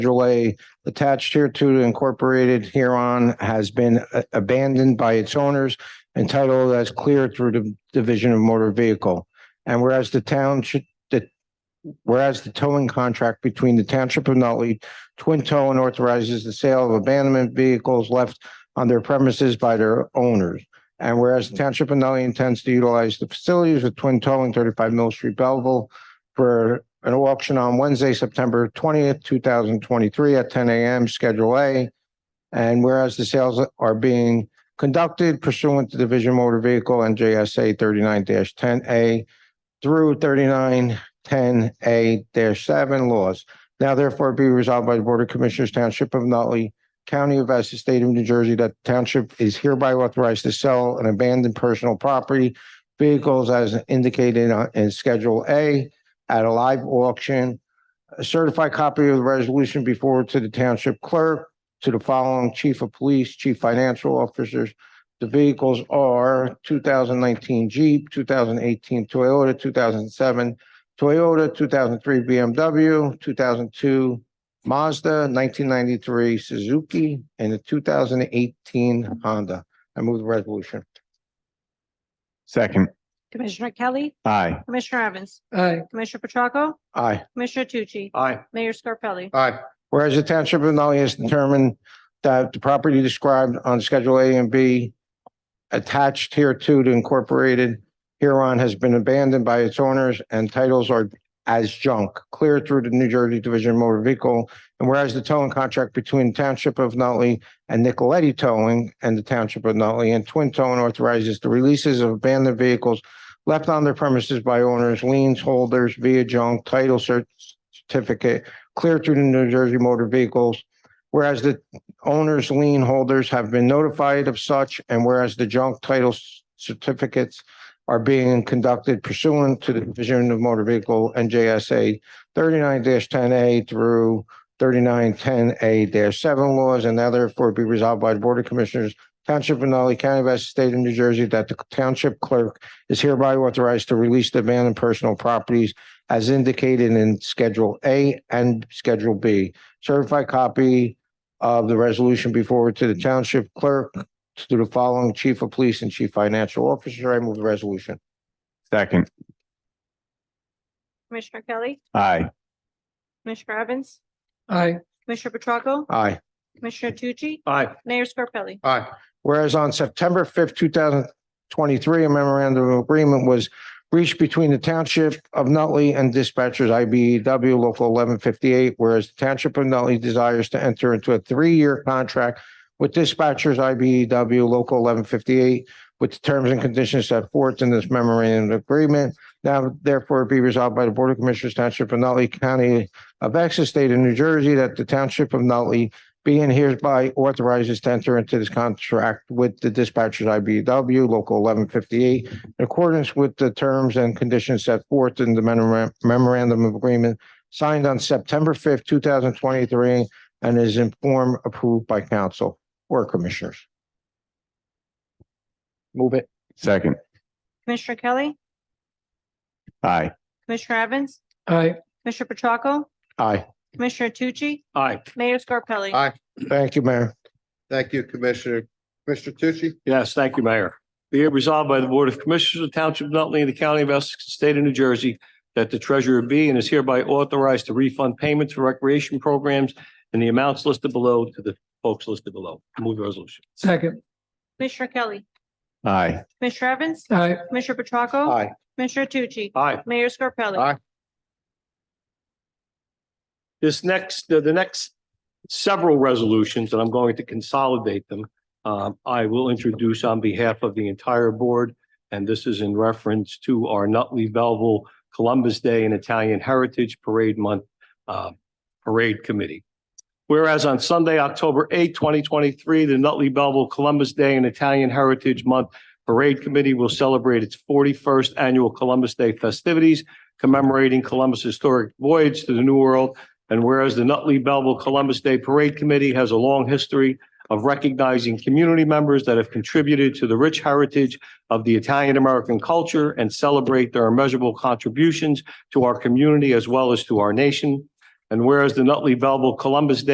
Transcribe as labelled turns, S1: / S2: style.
S1: Schedule A attached here to incorporated hereon has been a- abandoned by its owners entitled as clear through the division of motor vehicle. And whereas the town should, that whereas the towing contract between the township of Nutley Twin Towing authorizes the sale of abandonment vehicles left on their premises by their owners. And whereas the Township of Nutley intends to utilize the facilities of Twin Towing, thirty-five Mill Street, Belleville, for an auction on Wednesday, September twentieth, two thousand twenty-three at ten AM, Schedule A. And whereas the sales are being conducted pursuant to Division Motor Vehicle NJSA thirty-nine ten A through thirty-nine ten A seven laws. Now therefore be resolved by the Board of Commissioners Township of Nutley, County of Essex, State of New Jersey, that the township is hereby authorized to sell an abandoned personal property vehicles as indicated on- in Schedule A at a live auction. A certified copy of the resolution be forwarded to the township clerk, to the following chief of police, chief financial officers. The vehicles are two thousand nineteen Jeep, two thousand eighteen Toyota, two thousand seven Toyota, two thousand three BMW, two thousand two Mazda, nineteen ninety-three Suzuki, and the two thousand eighteen Honda. I move the resolution.
S2: Second.
S3: Commissioner Kelly,
S2: Aye.
S3: Commissioner Evans,
S4: aye,
S3: Commissioner Petracca,
S1: Aye.
S3: Commissioner Tucci,
S2: Aye.
S3: Mayor Scarpelli.
S2: Aye.
S1: Whereas the township of Nutley has determined that the property described on Schedule A and B attached here to the incorporated hereon has been abandoned by its owners and titles are as junk, clear through the New Jersey Division of Motor Vehicle. And whereas the towing contract between Township of Nutley and Nicoletti Towing and the Township of Nutley and Twin Towing authorizes the releases of abandoned vehicles left on their premises by owners, liens holders via junk title cert- certificate clear through the New Jersey Motor Vehicles. Whereas the owners lien holders have been notified of such and whereas the junk title s- certificates are being conducted pursuant to the Division of Motor Vehicle NJSA thirty-nine ten A through thirty-nine ten A seven laws and now therefore be resolved by the Board of Commissioners Township of Nutley County of Essex State of New Jersey that the township clerk is hereby authorized to release the abandoned personal properties as indicated in Schedule A and Schedule B. Certified copy of the resolution be forwarded to the township clerk, to the following chief of police and chief financial officer. I move the resolution.
S2: Second.
S3: Commissioner Kelly,
S2: Aye.
S3: Commissioner Evans,
S4: aye,
S3: Commissioner Petracca,
S1: Aye.
S3: Commissioner Tucci,
S2: Aye.
S3: Mayor Scarpelli.
S2: Aye.
S1: Whereas on September fifth, two thousand twenty-three, a memorandum of agreement was reached between the Township of Nutley and dispatchers IBEW Local eleven fifty-eight, whereas the Township of Nutley desires to enter into a three-year contract with dispatchers IBEW Local eleven fifty-eight with the terms and conditions set forth in this memorandum of agreement. Now therefore be resolved by the Board of Commissioners Township of Nutley County of Essex State of New Jersey that the Township of Nutley being hereby authorizes to enter into this contract with the dispatchers IBW Local eleven fifty-eight in accordance with the terms and conditions set forth in the memora- memorandum of agreement signed on September fifth, two thousand twenty-three, and is in form approved by council or commissioners.
S2: Move it. Second.
S3: Commissioner Kelly,
S2: Aye.
S3: Commissioner Evans,
S4: aye,
S3: Commissioner Petracca,
S1: Aye.
S3: Commissioner Tucci,
S2: Aye.
S3: Mayor Scarpelli.
S5: Aye.
S1: Thank you, Mayor.
S5: Thank you, Commissioner. Commissioner Tucci?
S6: Yes, thank you, Mayor. Be it resolved by the Board of Commissioners of the Township of Nutley and the County of Essex, the State of New Jersey, that the treasurer be and is hereby authorized to refund payments for recreation programs and the amounts listed below to the folks listed below. Move the resolution.
S4: second,
S3: Commissioner Kelly,
S2: Aye.
S3: Commissioner Evans,
S4: aye,
S3: Commissioner Petracca.
S1: Aye.
S3: Commissioner Tucci,
S6: Aye.
S3: Mayor Scarpelli.
S5: Aye.
S6: This next, the, the next several resolutions, and I'm going to consolidate them, um, I will introduce on behalf of the entire board. And this is in reference to our Nutley Belleville Columbus Day and Italian Heritage Parade Month, uh, Parade Committee. Whereas on Sunday, October 8, twenty twenty-three, the Nutley Belleville Columbus Day and Italian Heritage Month Parade Committee will celebrate its forty-first annual Columbus Day festivities commemorating Columbus' historic voyage to the New World and whereas the Nutley Belleville Columbus Day Parade Committee has a long history of recognizing community members that have contributed to the rich heritage of the Italian American culture and celebrate their immeasurable contributions to our community as well as to our nation. And whereas the Nutley Belleville Columbus Day